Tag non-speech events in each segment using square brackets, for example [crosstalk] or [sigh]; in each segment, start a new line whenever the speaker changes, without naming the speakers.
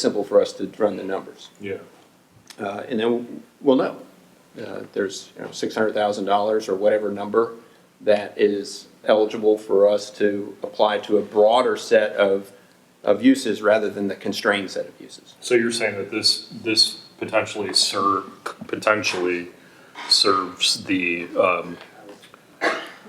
simple for us to run the numbers.
Yeah,
Uh, And then we'll know. Uh, There's, you know, $600,000 or whatever number that is eligible for us to apply to a broader set of, of uses rather than the constrained set of uses.
so you're saying that this, this potentially ser, potentially serves the, um,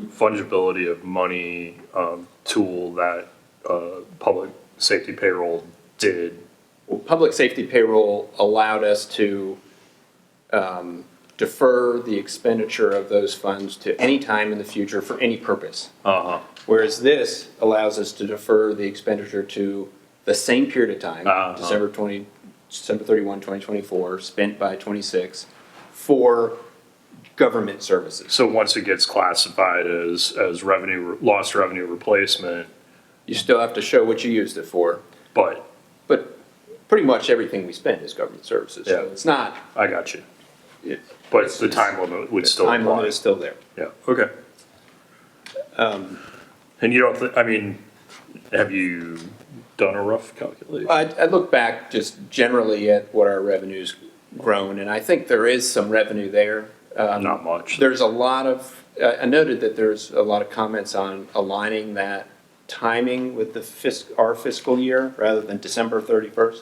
fungibility of money, um, tool that, uh, public safety payroll did.
Well, Public safety payroll allowed us to um, defer the expenditure of those funds to any time in the future for any purpose.
Uh-huh,
Whereas this allows us to defer the expenditure to the same period of time,
Uh-huh.
December twenty, December thirty-one, twenty twenty-four, spent by twenty-six, for government services.
so once it gets classified as, as revenue, lost revenue replacement,
You still have to show what you used it for,
but,
but pretty much everything we spend is government services. So
Yeah.
It's not,
I got you.
it-
But the time limit would
the
still
time limit
apply.
is still there.
Yeah, okay. Um, And you don't, thi- I mean, have you done a rough calculation?
I, I look back just generally at what our revenue's grown, and I think there is some revenue there. Um,
Not much.
There's a lot of, uh, I I noted that there's a lot of comments on aligning that timing with the fis, our fiscal year rather than December thirty-first.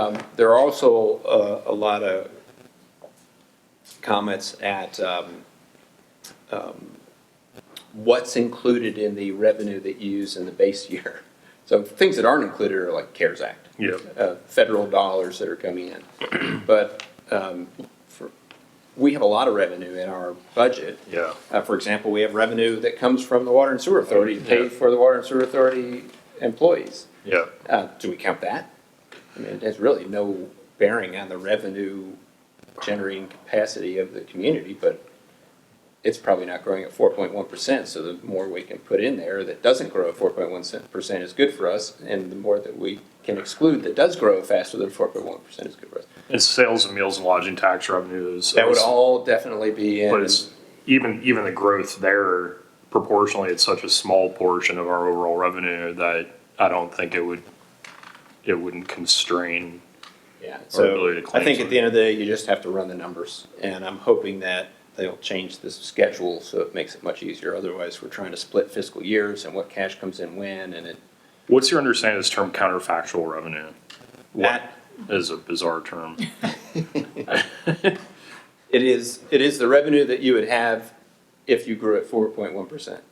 Um, there are also, uh, a lot of comments at, um, what's included in the revenue that you use in the base year. So things that aren't included are like CARES Act.
Yeah.
Uh, federal dollars that are coming
[clears throat]
in. But, um, for, we have a lot of revenue in our budget.
Yeah.
Uh, for example, we have revenue that comes from the Water and Sewer Authority to pay
Yeah.
for the Water and Sewer Authority employees.
Yeah,
Uh, do we count that? I mean, it has really no bearing on the revenue generating capacity of the community, but it's probably not growing at four point one percent, so the more we can put in there that doesn't grow at four point one percent is good for us, and the more that we can exclude that does grow faster than four point one percent is good for us.
it's sales and meals and lodging tax revenues.
That would all definitely be in.
But it's, even, even the growth there proportionally, it's such a small portion of our overall revenue that I don't think it would, it wouldn't constrain.
Yeah,
ability
so
to
I
claim
think at
something.
the end of the day, you just have to run the numbers, and I'm hoping that they'll change the schedule so it makes it much easier. Otherwise, we're trying to split fiscal years and what cash comes in when, and it,
What's your understanding of this term counterfactual revenue?
that,
Is a
[laughs]
bizarre term.
it is, it is the revenue that you would have if you grew at four point one percent,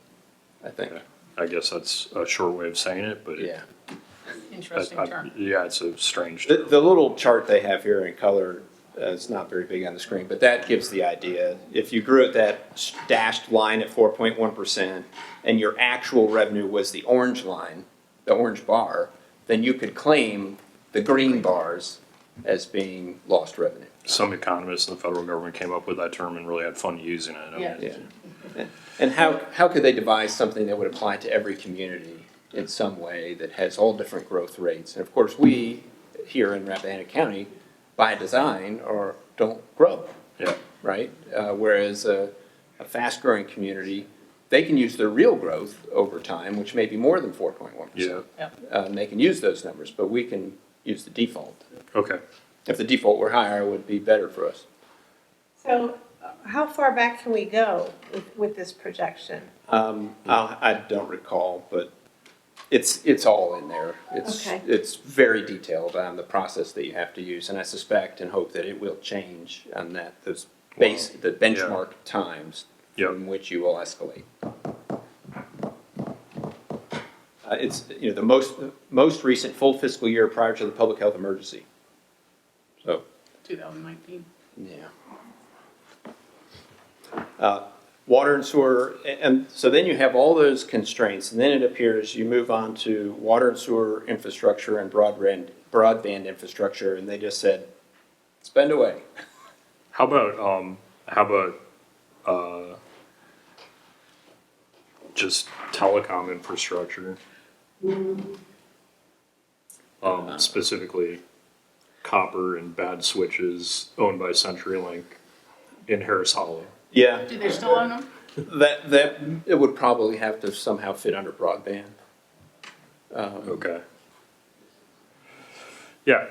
I think,
I guess that's a short way of saying it, but. it-
yeah.
I-
Interesting
I-
term.
Yeah, it's a strange
The,
term.
the little chart they have here in color, uh, it's not very big on the screen, but that gives the idea. If you grew at that dashed line at four point one percent and your actual revenue was the orange line, the orange bar, then you could claim the green bars as being lost revenue.
some economists in the federal government came up with that term and really had fun using it. I mean,
Yeah.
Yeah. And how, how could they devise something that would apply to every community in some way that has all different growth rates? And of course, we here in Rappahannock County, by design, are, don't grow.
yeah,
right? Uh, whereas a, a fast-growing community, they can use their real growth over time, which may be more than four point one
yeah.
percent.
Yeah.
Uh, and they can use those numbers, but we can use the default.
Okay.
If the default were higher, it would be better for us.
So uh, how far back can we go with, with this projection?
Um, I'll- I don't recall, but it's, it's all in there. It's,
Okay.
it's very detailed on the process that you have to use, and I suspect and hope that it will change on that, those base, the benchmark times
Yeah.
from which you will escalate. Uh, it's, you know, the most, most recent full fiscal year prior to the public health emergency. So,
2019.
yeah. Uh, Water and sewer, a- and so then you have all those constraints, and then it appears you move on to water and sewer infrastructure and broadband, broadband infrastructure, and they just said, spend away.
How about um? How about uh? Just telecom infrastructure.
Uh-huh.
Um, specifically, copper and bad switches owned by CenturyLink in Harris Hollow.
Yeah,
Do they still own them?
that, that, it would probably have to somehow fit under broadband.
Okay. Yeah,